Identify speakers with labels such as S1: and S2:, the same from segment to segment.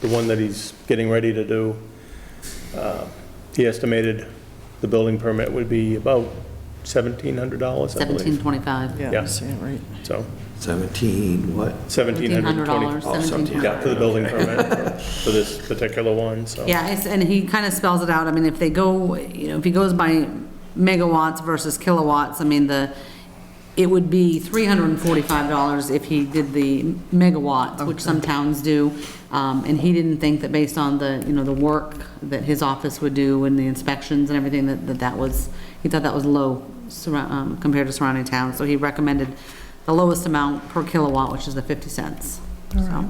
S1: the one that he's getting ready to do, uh, he estimated the building permit would be about $1,700, I believe.
S2: 1725.
S1: Yeah.
S3: Yeah, I see it right.
S1: So
S4: 17, what?
S1: $1,720.
S2: $1,720.
S4: Oh, 17.
S1: Yeah, for the building permit, for this particular one, so.
S2: Yeah, it's- and he kind of spells it out. I mean, if they go, you know, if he goes by megawatts versus kilowatts, I mean, the, it would be $345 if he did the megawatts, which some towns do. Um, And he didn't think that based on the, you know, the work that his office would do and the inspections and everything, that that that was, he thought that was low surra- um, compared to surrounding towns. So he recommended the lowest amount per kilowatt, which is the 50 cents. So,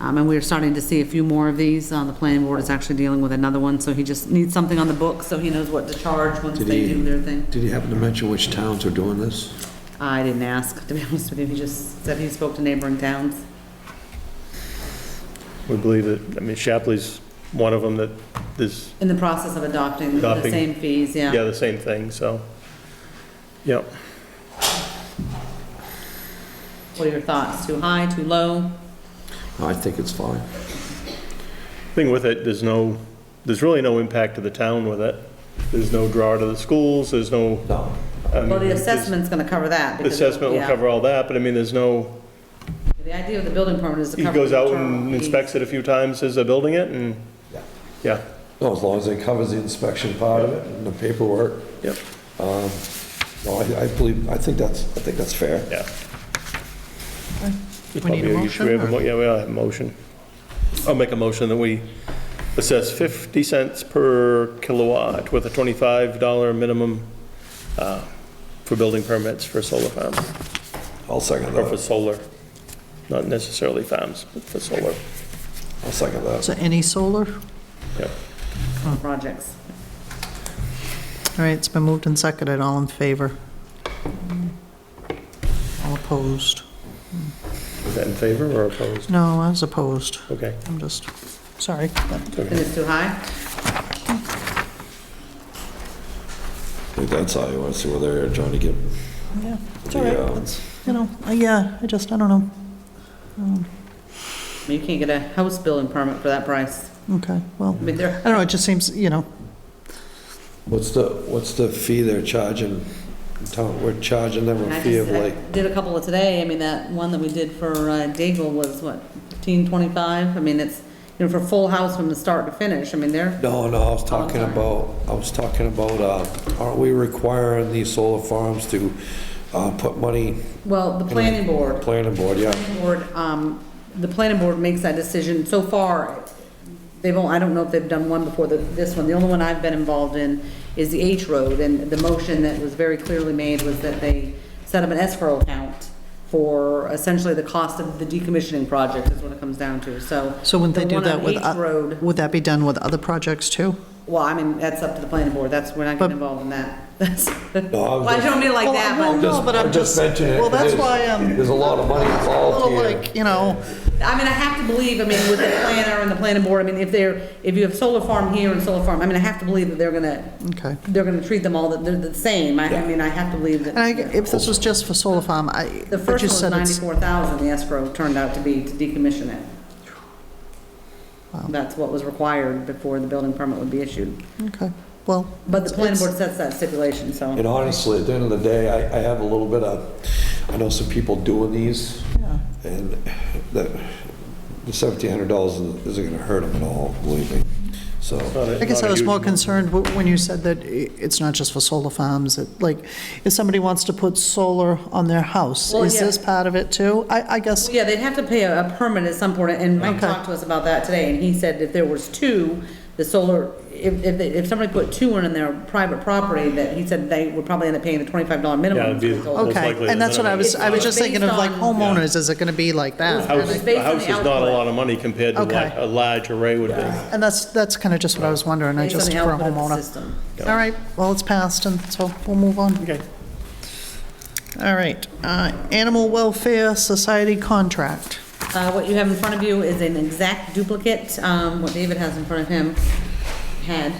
S2: um, And we're starting to see a few more of these. Uh, The planning board is actually dealing with another one, so he just needs something on the book so he knows what to charge once
S4: Did
S2: they
S4: he,
S2: do their thing.
S4: did he happen to mention which towns are doing this?
S2: I didn't ask, to be honest with you. He just said he spoke to neighboring towns.
S1: We believe that, I mean, Shapley's one of them that is,
S2: In the process of adopting the
S1: Adopting.
S2: same fees,
S1: yeah,
S2: yeah.
S1: the same thing, so. Yep.
S2: What are your thoughts? Too high, too low?
S4: I think it's fine.
S1: Thing with it, there's no, there's really no impact to the town with it. There's no draw to the schools, there's no.
S4: No.
S1: I mean,
S2: Well, the
S1: there's-
S2: assessment's gonna cover that.
S1: the
S2: because-
S1: Mm-hmm. Assessment will
S2: yeah.
S1: cover all that, but I mean, there's no,
S2: The idea of the building permit is to
S1: he
S2: cover.
S1: goes
S2: the
S1: out
S2: internal
S1: and
S2: fees.
S1: inspects it a few times as they're building it and,
S4: Yeah.
S1: yeah,
S4: No, as long as it covers the inspection part of it and the paperwork.
S1: yep,
S4: No, I, I believe, I think that's, I think that's fair.
S1: yeah.
S3: We need a
S1: Probably
S3: motion,
S1: we have a
S3: or-
S1: mo- Yeah, we all have a motion. I'll make a motion that we assess 50 cents per kilowatt with a $25 minimum uh, for building permits for solar farms,
S4: I'll second
S1: or for
S4: that.
S1: solar, not necessarily farms, but for solar.
S4: I'll second that.
S3: So any solar? All
S1: Yep.
S2: Projects.
S3: right, it's been moved and seconded, all in favor? All opposed?
S1: Is that in favor or opposed?
S3: No, I was opposed,
S1: Okay.
S3: I'm just, sorry.
S2: And it's too high?
S4: I think that's how you want to see whether they're trying to get
S3: Yeah, it's all
S4: the,
S3: right,
S4: uh,
S3: It's, you know, I- yeah, I just, I don't know,
S2: I mean, You can't get a house building permit for that price.
S3: okay, well,
S2: I mean,
S3: I
S2: they're,
S3: don't know, it just seems, you know,
S4: what's the, what's the fee they're charging? in town? We're charging them
S2: And
S4: a
S2: I
S4: fee
S2: just,
S4: of
S2: I
S4: like,
S2: did a couple of today, I mean, that one that we did for uh, Daigle was, what, fifteen twenty-five? I mean, it's, you know, for full house from the start to finish, I mean, they're,
S4: no, no, I was talking
S2: Oh, sorry.
S4: about, I was talking about, uh, aren't we requiring these solar farms to, uh, put money
S2: well, the planning board,
S4: Planning board, yeah.
S2: planning board, um, the planning board makes that decision. So far, they've, all- I don't know if they've done one before the- this one. The only one I've been involved in is the H Road, and the motion that was very clearly made was that they set up an escrow account for essentially the cost of the decommissioning project is what it comes down to, so.
S3: so wouldn't they
S2: the
S3: do
S2: one on
S3: that with,
S2: H Road
S3: o- would that be done with other projects too?
S2: Well, I mean, that's up to the planning board, that's, we're not
S3: But-
S2: getting involved in that. That's-
S4: was
S2: Well, I
S4: just-
S2: don't mean it like
S3: Well,
S2: that,
S3: well,
S2: but,
S3: No, but I'm
S4: I just
S3: just-
S4: mentioned it.
S3: well, that's
S4: There's-
S3: why um, I'm-
S4: There's a lot of money
S3: A little
S4: involved here.
S3: like, you know,
S2: I mean, I have to believe, I mean, with the planner and the planning board, I mean, if they're, if you have solar farm here and solar farm, I mean, I have to believe that they're gonna,
S3: okay.
S2: they're gonna treat them all, that they're the same, I, I mean, I have to believe
S3: And I,
S2: that.
S3: if this was just for solar farm, I,
S2: The
S3: but
S2: first
S3: you
S2: one was
S3: said it's,
S2: ninety-four thousand, the escrow turned out to be to decommission it. That's what was required before the building permit would be issued,
S3: okay, well.
S2: but the planning
S3: it's-
S2: board sets that stipulation, so.
S4: And honestly, at the end of the day, I, I have a little bit of, I know some people doing these,
S3: yeah.
S4: and that, the seventeen hundred dollars isn't gonna hurt them at all, believe me, so.
S1: Not a-
S3: I guess
S1: not
S3: I
S1: a
S3: was
S1: huge
S3: more
S1: amount.
S3: concerned wh- when you said that i- it's not just for solar farms, it, like, if somebody wants to put solar on their house,
S2: Well,
S3: is
S2: yeah.
S3: this part of it too? I, I guess,
S2: Yeah, they'd have to pay a a permit at some point, and Mike
S3: Okay.
S2: talked to us about that today, and he said if there was two, the solar, if, if, they- if somebody put two in their private property, that he said they would probably end up paying the twenty-five dollar
S1: Yeah,
S2: minimum.
S1: it'd be
S2: for solar.
S1: most likely
S3: okay, and
S1: the
S3: that's what I
S1: minimum.
S3: was, I was just thinking of like
S2: Based on-
S3: homeowners, is it gonna be like that?
S1: House,
S2: It's based
S1: a
S2: on
S1: house
S2: the
S1: is not a
S2: output.
S1: lot of money compared to
S3: Okay.
S1: what a large array would be.
S3: And that's, that's kinda just what I was wondering, I
S2: Based on
S3: just,
S2: the
S3: for a
S2: output of the
S3: homeowner.
S2: system.
S3: All right, well, it's passed, and so we'll move on.
S1: Okay.
S3: All right, uh, Animal Welfare Society contract.
S2: Uh, what you have in front of you is an exact duplicate, um, what David has in front of him, had.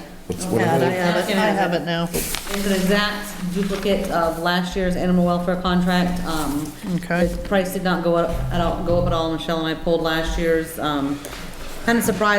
S4: what
S3: I
S4: is it?
S3: have it, I have it now.
S2: It's an exact duplicate of last year's animal welfare contract. Um,
S3: Okay.
S2: The price did not go up, at all- go up at all, Michelle and I pulled last year's. Um, Kind of surprised